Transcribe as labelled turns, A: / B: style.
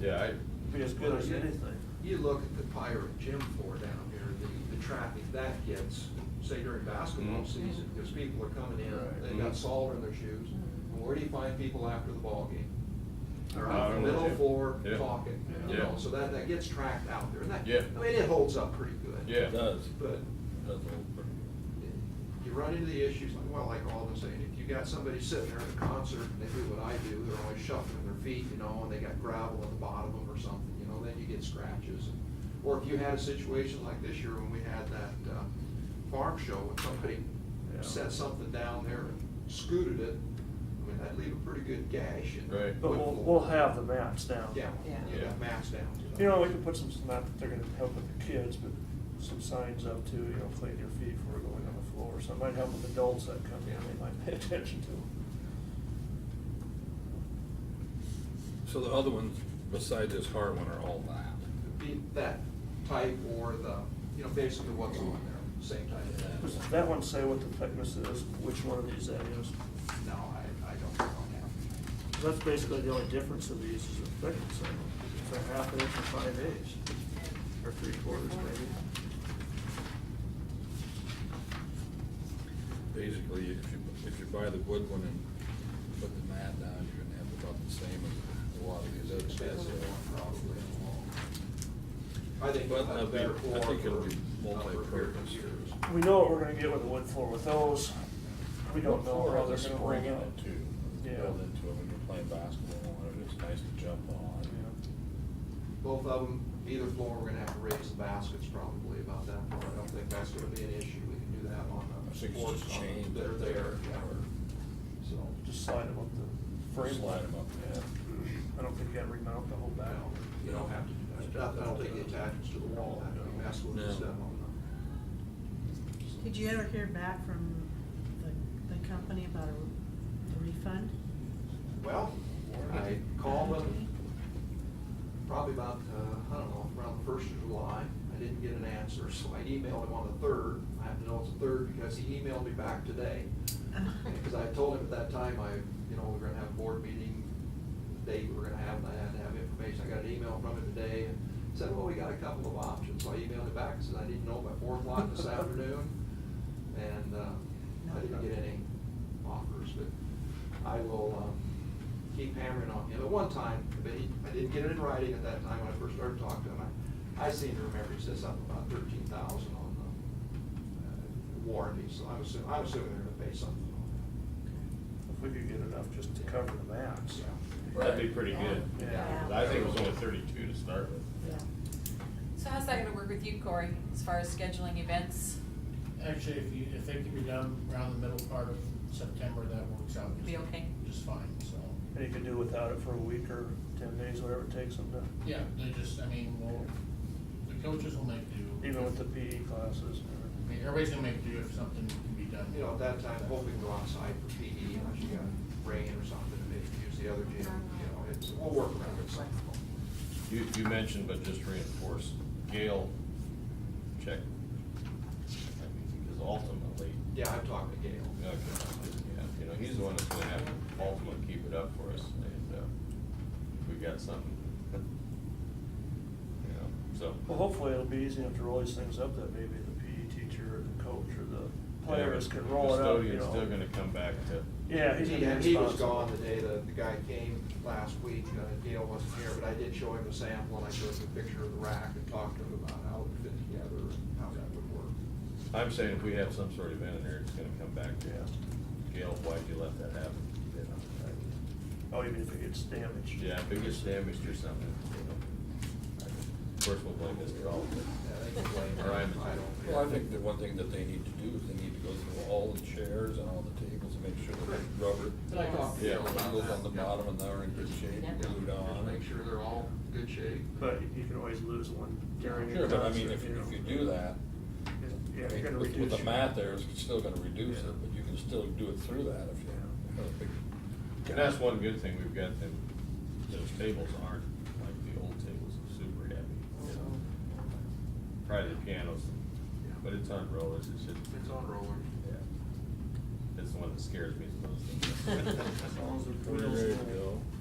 A: Yeah, I,
B: be as good as anything.
C: You look at the pirate gym floor down here, the, the traffic that gets, say during basketball
A: Mhm.
C: season, because people are coming in,
B: Right.
C: they've got
A: Mhm.
C: salt in their shoes. And where do you find people after the ballgame? They're
A: I
C: out
A: don't
C: in
A: know,
C: the middle
A: yeah.
C: floor
A: Yeah.
C: talking, you
A: Yeah.
C: know, so that, that gets tracked out there. And that,
A: Yeah.
C: I mean, it holds up pretty good.
A: yeah.
D: It does,
C: But
D: does hold pretty
C: you run into the issues, like, well, like Alden's saying, if you got somebody sitting there at a concert, and they do what I do, they're always shuffling their feet, you know, and they got gravel at the bottom of them or something, you know, then you get scratches. Or if you had a situation like this year when we had that, uh, farm show, and somebody
B: Yeah.
C: set something down there and scooted it, I mean, that'd leave a pretty good gash and.
A: Right.
B: But we'll, we'll have the maps down.
C: Yeah,
E: Yeah.
C: you got maps down. to that.
B: You know, we can put some, not that they're gonna help with the kids, but some signs up too, you know, clean your feet before going on the floor, so it might help with adults that come in, they might pay attention to them.
D: So the other ones beside this hard one are all that?
C: Be that type or the, you know, basically what's on there, same type of that.
B: Does that one say what the thickness is, which one of these that is?
C: No, I, I don't know now.
B: That's basically the only difference of these is the thickness of them. It's a half inch or five eighths, or three quarters maybe.
D: Basically, if you, if you buy the wood one and put the mat down, you're gonna have about the same as a lot of these other sets.
C: Expensive one, probably. I think
D: But
C: we'll
D: that'd
C: have
D: be-
C: better
D: I think it'll be
C: floor for a number of
D: multi-purpose.
C: years.
B: We know what we're gonna get with the wood floor with those. We don't know
D: Or
B: how
D: the
B: they're gonna ring
D: spring in
B: out.
D: it too.
B: Yeah.
D: Build into it when you're playing basketball, and it's nice to jump on.
C: Both of them, either floor, we're gonna have to raise the baskets probably about that part. I don't think that's gonna be an issue. We can do that on
D: I
C: the
D: think it's
C: boards
D: just chain.
C: that are there, yeah. So,
B: Just slide them up the frame.
D: Slide 'em up, yeah.
B: I don't think you gotta remount the whole back.
C: no, you don't have to do that. I don't think the attachments to the wall have to be messed with and
D: No.
C: stuff on
E: Did you ever hear back from the, the company about a the refund?
C: them. Well, I called them probably about, uh, I don't know, around the first of July. I didn't get an answer, so I emailed him on the third. I have to know it's the third because he emailed me back today. Because I told him at that time, I, you know, we're gonna have a board meeting, the date we we're gonna have, and I had to have information. I got an email from him today and said, well, we got a couple of options. So I emailed him back and said, I didn't know by four o'clock this afternoon. And, uh, I didn't get any offers, but I will, um, keep hammering on him. At one time, but he, I didn't get it in writing at that time when I first started talking to him. I I seem to remember he says something about thirteen thousand on the uh, warranty, so I'm assuming, I'm assuming they're gonna pay something on
B: If we could get enough just to cover the
C: that.
B: mats.
C: Yeah.
A: That'd be pretty good.
B: Yeah.
A: I think it was only thirty-two to start with.
E: Yeah.
F: So how's that gonna work with you, Corey, as far as scheduling events?
G: Actually, if you, if it can be done around the middle part of September, that works out. just-
F: Be okay?
G: Just fine, so,
B: And you could do without it for a week or ten days, whatever it takes them to,
G: yeah, they just, I mean, we'll the coaches will make do.
B: even with the PE classes.
G: I mean, everybody's gonna make do if something can be done.
C: You know, at that time, hoping to go outside for PE, unless you got rain or something, and maybe use the other gym, you know, it's, we'll work around it somehow.
A: You, you mentioned, but just reinforce, Gail, check. I mean, Because ultimately,
C: Yeah, I've talked to Gail.
A: you know, you know, he's the one that's gonna have to ultimately keep it up for us, and, uh, we got something. You know, so.
B: Well, hopefully it'll be easy enough to roll these things up that maybe the PE teacher or the coach or the players can roll it up, you
A: Custodian's still
B: know.
A: gonna come back to,
B: Yeah, he's
C: He,
B: gonna be
C: he was
B: responsible.
C: gone the day the, the guy came last week, uh, Gail wasn't here, but I did show him a sample, and I showed him a picture of the rack and talked to him about how it fit together, and how that would work.
A: I'm saying if we have some sort of event in there, it's gonna come back to,
B: Yeah.
A: Gail, why'd you let that happen? You know, I-
B: Oh, even if it gets damaged.
A: Yeah, if it gets damaged or something, you know. Of course, we'll blame Mr. Oliver.
C: Yeah, they can blame him,
A: All right.
C: I don't.
D: Well, I think the one thing that they need to do is they need to go through all the chairs and all the tables and make sure that the rubber
C: But I talked to
A: Yeah.
C: Gail about
D: shingles on the
C: that. Yeah.
D: bottom and they're in good shape, glued
C: Just
D: on.
C: Make sure they're all in good shape.
B: But you can always lose one during your
D: Sure, but I mean,
B: concert,
D: if,
B: you
D: if you
B: know.
D: do that,
B: Yeah, you're gonna
D: with
B: reduce.
D: with the
B: your-
D: mat there, it's still gonna reduce it, but you can still do it through that if you.
B: Yeah.
D: if it-
A: And that's one good thing, we've got them, those tables aren't like the old tables, are super heavy. you know.
B: Mm-hmm.
A: Probably the pianos, but it's on rollers, it's just,
C: It's on roller.
A: yeah. It's the one that scares me the most.
B: As long as the
D: There
B: wheels
D: you
B: don't
D: go.